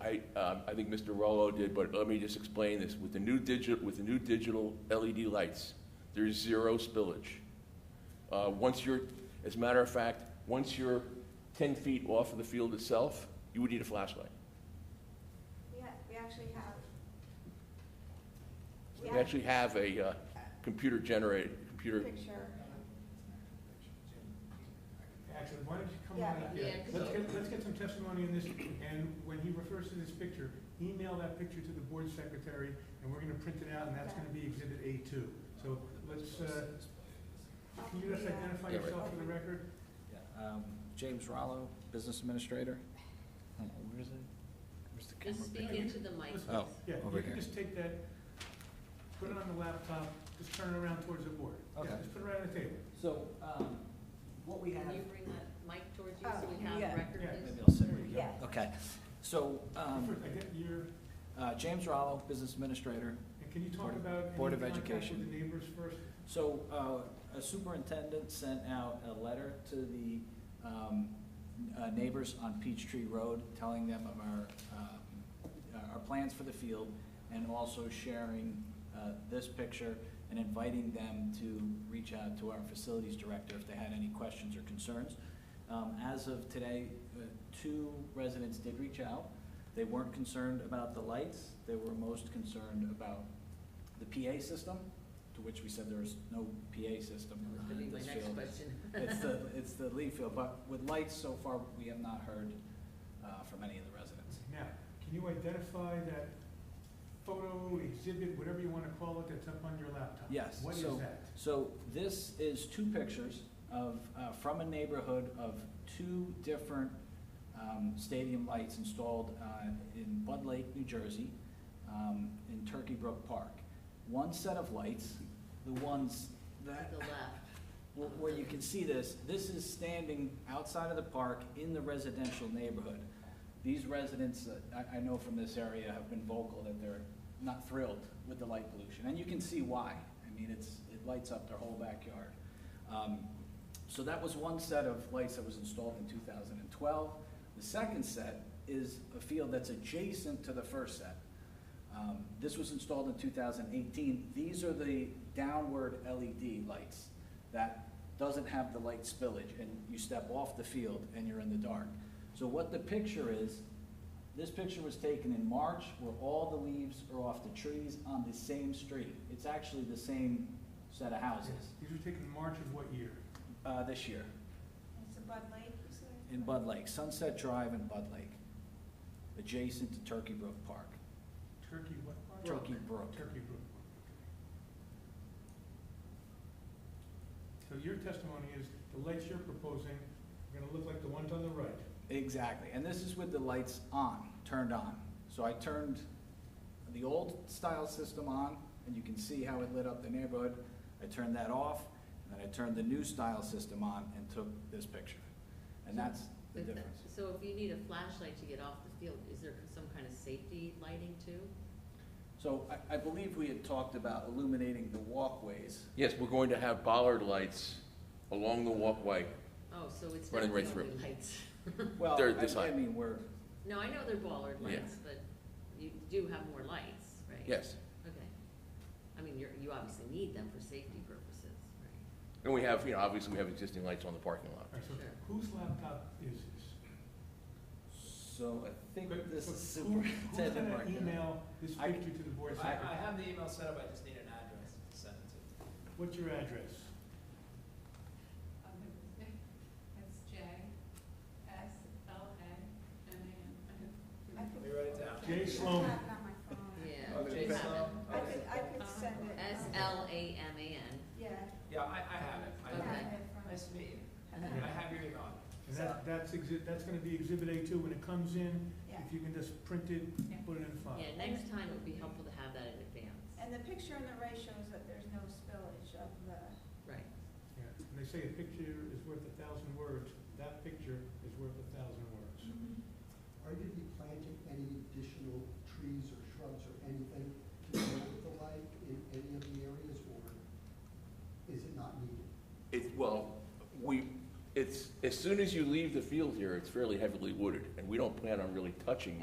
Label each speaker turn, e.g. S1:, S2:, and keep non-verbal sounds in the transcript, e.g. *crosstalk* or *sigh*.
S1: I, um, I think Mr. Rollo did, but let me just explain this. With the new digit, with the new digital LED lights, there's zero spillage. Uh, Once you're, as a matter of fact, once you're 10 feet off of the field itself, you would need a flashlight.
S2: We ha we actually have.
S1: We
S2: have
S1: actually have a uh, computer generated,
S2: a
S1: computer,
S2: Picture,
S3: Actually, why don't you come
S2: Yeah.
S3: on up
S4: Yeah,
S3: here?
S4: 'cause
S3: Let's
S4: I-
S3: get, let's get some testimony on this, and when he refers to this picture, email that picture to the board secretary, and we're gonna print it out, and that's gonna be exhibit A two. So let's, uh, can you just
S2: uh,
S3: identify
S5: Yeah, right.
S3: yourself for the record?
S5: Yeah, um, James Rollo, Business Administrator. Oh, Where is it? Where's the camera?
S4: Just speak
S5: thing?
S4: into the mic.
S3: Let's-
S5: Oh,
S3: Yeah,
S5: over
S3: you can
S5: here.
S3: just take that, put it on the laptop, just turn it around towards the board. Yeah,
S5: Okay.
S3: Just put it right on the table.
S6: So, um, what we have.
S4: Can you bring that mic towards you
S2: Oh,
S4: so we have
S2: yeah.
S4: a record?
S3: Yeah.
S5: Maybe I'll sit where you
S2: Yeah.
S5: go. Okay, so, um,
S3: First, I get your,
S5: uh, James Rollo, Business Administrator.
S3: and can you talk
S5: Board of-
S3: about
S5: Board
S3: any
S5: of
S3: contact with
S5: Education.
S3: the neighbors first?
S5: So, uh, a superintendent sent out a letter to the, um, uh, neighbors on Peachtree Road, telling them of our, um, uh, our plans for the field, and also sharing, uh, this picture, and inviting them to reach out to our facilities director if they had any questions or concerns. Um, as of today, uh, two residents did reach out. They weren't concerned about the lights, they were most concerned about the PA system, to which we said there is no PA system
S4: That was gonna be
S5: in
S4: my
S5: this
S4: next
S5: field.
S4: question.
S5: It's the, it's the leaf field, but with lights so far, we have not heard, uh, from any of the residents.
S3: Now, can you identify that photo, exhibit, whatever you want to call it, that's up on your laptop?
S5: Yes,
S3: What is
S5: so-
S3: that?
S5: So this is two pictures of, uh, from a neighborhood of two different um, stadium lights installed uh, in Bud Lake, New Jersey, um, in Turkey Brook Park. One set of lights, the ones that, *laughs*
S4: To the left.
S5: where- where you can see this, this is standing outside of the park in the residential neighborhood. These residents, uh, I, I know from this area, have been vocal that they're not thrilled with the light pollution, and you can see why. I mean, it's, it lights up their whole backyard. Um, So that was one set of lights that was installed in two thousand and twelve. The second set is a field that's adjacent to the first set. Um, This was installed in 2018. These are the downward LED lights that doesn't have the light spillage, and you step off the field and you're in the dark. So what the picture is, this picture was taken in March where all the leaves are off the trees on the same street. It's actually the same set of houses
S3: These were taken in March of what year?
S5: uh, this year
S2: it's a Bud Light, you said?
S5: in Bud Lake, Sunset Drive in Bud Lake, adjacent to Turkey Brook Park.
S3: Turkey, what? part?
S5: Turkey Brook.
S3: Turkey Brook. So your testimony is the lights you're proposing are gonna look like the ones on the right.
S5: Exactly, and this is with the lights on, turned on. So I turned the old style system on, and you can see how it lit up the neighborhood. I turned that off, and then I turned the new style system on and took this picture. And that's the
S4: But the-
S5: difference.
S4: So if you need a flashlight to get off the field, is there some kind of safety lighting too?
S5: So I, I believe we had talked about illuminating the walkways.
S1: yes, we're going to have bollard lights along the walkway.
S4: Oh, so it's not
S1: Running right
S4: the only
S1: through.
S4: lights. *laughs*
S5: Well,
S1: They're
S5: I-
S1: this high.
S5: I mean, we're,
S4: No, I know they're bollard
S1: Yeah.
S4: lights, but you do have more lights, right?
S1: Yes.
S4: Okay. I mean, you're, you obviously need them for safety purposes, right?
S1: And we have, you know, obviously, we have existing lights on the parking lot.
S3: All right, so
S4: Sure.
S3: whose laptop is this?
S5: so I think
S3: But-
S5: this
S3: but
S5: is
S3: who-
S5: superintendent *laughs*
S3: Who's
S5: right now.
S3: gonna email this
S5: I-
S3: picture to the board
S7: I, I
S3: secretary?
S7: have the email set up, I just need an address to send it to.
S3: What's your address?
S8: It's J S L A M A
S2: I
S8: N.
S2: could-
S7: Let me write it down.
S3: Jay
S2: I should
S3: Sloan.
S2: have it on my phone.
S4: Yeah.
S5: Okay.
S7: Jay
S4: you have it.
S7: Sloan?
S2: I could, I could send it.
S4: S L A M A N.
S2: Yeah.
S7: Yeah, I, I have it. I
S2: I
S7: have
S2: have it
S7: it.
S2: from-
S7: Nice to meet you.
S3: Yeah.
S7: I have your email.
S3: And that, that's exhibit, that's gonna be exhibit A two when it comes in.
S2: Yeah.
S3: If you can just print it,
S8: Yeah.
S3: put it in the file.
S4: Yeah, next time it would be helpful to have that in advance.
S2: And the picture on the right shows that there's no spillage of the,
S4: Right.
S3: Yeah, and they say a picture is worth a thousand words, that picture is worth a thousand words.
S9: Are you gonna be planting any additional trees or shrubs or anything to go with the light in any of the areas, or is it not needed?
S1: It, well, we, it's, as soon as you leave the field here, it's fairly heavily wooded, and we don't plan on really touching